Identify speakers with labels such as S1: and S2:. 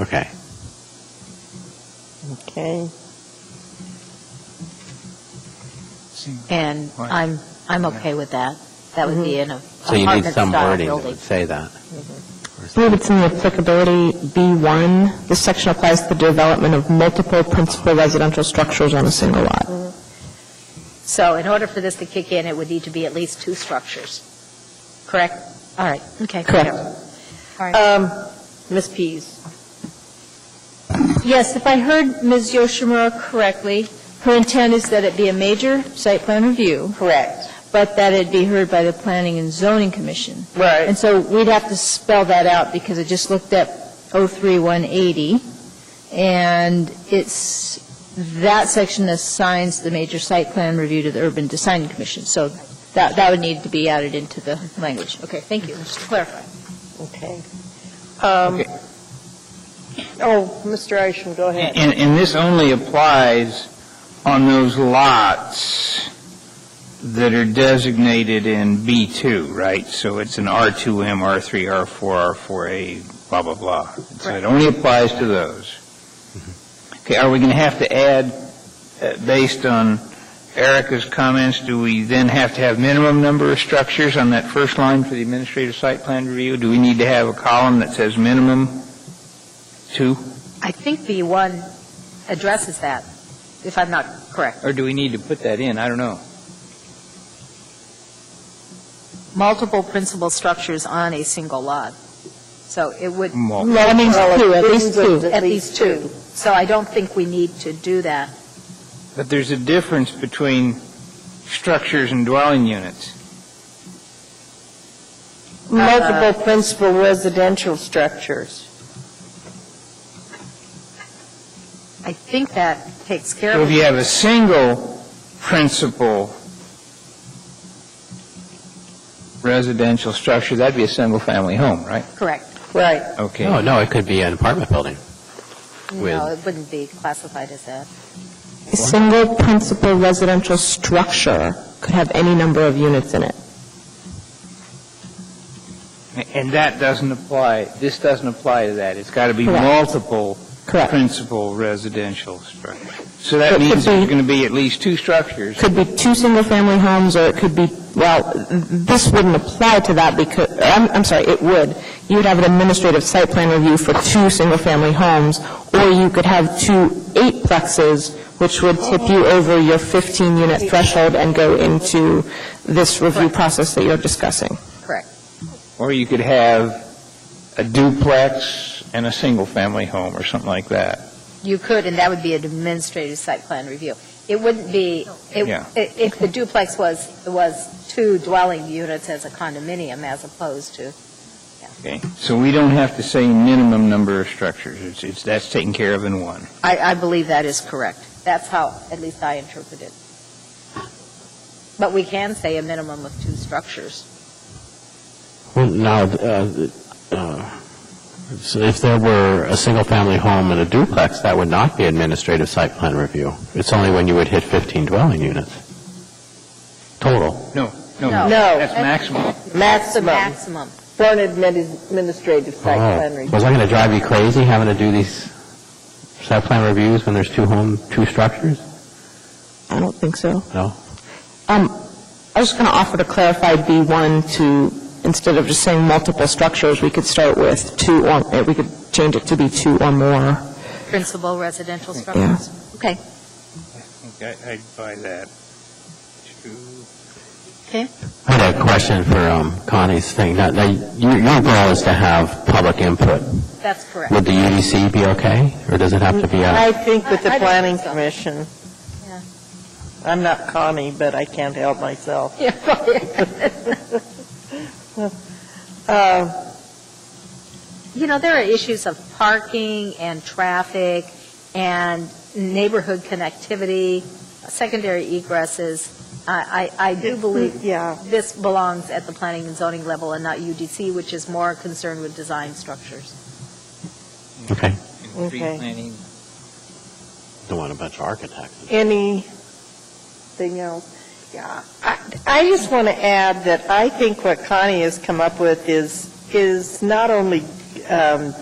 S1: Okay.
S2: Okay.
S3: And
S4: Right.
S3: I'm, I'm okay with that. That would
S5: Mm-hmm.
S3: be in a
S1: So you need some
S3: apartment-style
S1: wording that
S3: building.
S1: would say that.
S5: I believe it's in the applicability B1. This section applies to the development of multiple principal residential structures on a single lot.
S3: So in order for this to kick in, it would need to be at least two structures, correct? All right, okay.
S5: Correct.
S2: Um, Ms. Pease,
S6: Yes, if I heard Ms. Yoshimura correctly, her intent is that it be a major site plan review,
S2: correct.
S6: but that it be heard by the Planning and Zoning Commission.
S2: Right.
S6: And so we'd have to spell that out, because I just looked oh at 03180, and it's, that section assigns the major site plan review to the Urban Design Commission, so that, that would need to be added into the language. Okay, thank you, just to clarify.
S2: Okay. Um,
S4: Okay.
S2: Oh, Mr. Isham, go ahead.
S4: And, and this only applies on those lots that are designated in B2, right? So it's an R2M, R3, R4, R4A, blah, blah, blah. So it only applies to those. Okay, are we going to have to add, uh, based on Erica's comments, do we then have to have minimum number of structures on that first line for the administrative site plan review? Do we need to have a column that says minimum two?
S3: I think B1 addresses that, if I'm not correct.
S4: Or do we need to put that in? I don't know.
S3: Multiple principal structures on a single lot. So it would,
S4: Well,
S5: That means
S2: Well,
S5: two, at
S2: it
S5: least
S2: means it's
S5: two.
S3: at least two. So I don't think we need to do that.
S4: But there's a difference between structures and dwelling units.
S2: Multiple principal residential structures.
S3: I think that takes care
S4: So
S3: of
S4: if
S3: it.
S4: you have a single principal residential structure, that'd be a single-family home, right?
S3: Correct.
S2: Right.
S1: No,
S4: Okay.
S1: no, it could be an apartment building.
S3: No, it wouldn't be classified as that.
S5: A single principal residential structure could have any number of units in it.
S4: And that doesn't apply, this doesn't apply to that. It's got to be
S5: Correct.
S4: multiple
S5: Correct.
S4: principal residential structures. So
S5: It
S4: that
S5: could
S4: means
S5: be-
S4: there's going to be at least two structures.
S5: Could be two single-family homes, or it could be, well, this wouldn't apply to that because, I'm, I'm sorry, it would. You would have an administrative site plan review for two single-family homes, or you could have two eightplexes, which would tip you over your 15-unit threshold and go into this review process that you're discussing.
S4: Or you could have a duplex and a single-family home or something like that.
S3: You could, and that would be an administrative site plan review. It wouldn't be, it-
S4: Yeah.
S3: i- if the duplex was, was two dwelling units as a condominium as opposed to,
S4: Okay, so we don't have to say minimum number of structures, it's, it's, that's taken care of in one.
S3: I, I believe that is correct. That's how, at least I interpret it. But we can say a minimum of two structures.
S1: Well, now, uh, uh, so if there were a single-family home and a duplex, that would not be administrative site plan review. It's only when you would hit 15 dwelling units total.
S4: No,
S3: No.
S4: That's maximum.
S2: Maximum
S3: Maximum.
S2: for an admin- administrative site plan
S1: Oh,
S2: review.
S1: was I going to drive you crazy having to do these site plan reviews when there's two home, two structures?
S5: I don't think so.
S1: No?
S5: Um, I was just going to offer to clarify B1 to, instead of just saying multiple structures, we could start with two, or eh, we could change it to be two or more.
S3: Principal residential structures. Okay.
S4: Okay, I'd buy that. Two.
S1: I had a question for um, Connie's thing. Now, now, your your goal is to have public input.
S3: That's correct.
S1: Would the UDC be okay, or does it have to be uh,
S5: Mm,
S1: a...
S2: I think with the
S3: I- I don't
S2: planning
S3: think so.
S2: commission.
S3: Yeah.
S2: I'm not Connie, but I can't help myself. Uh,
S3: You know, there are issues of parking and traffic and neighborhood connectivity, secondary egresses. I, I I do believe
S2: Yeah,
S3: this belongs at the planning and zoning level and not UDC, which is more concerned with design structures.
S1: Okay.
S2: Okay.
S4: planning.
S1: Don't want a bunch of architects.
S2: anything else? Yeah, I, I just want to add that I think what Connie has come up with is, is not only um,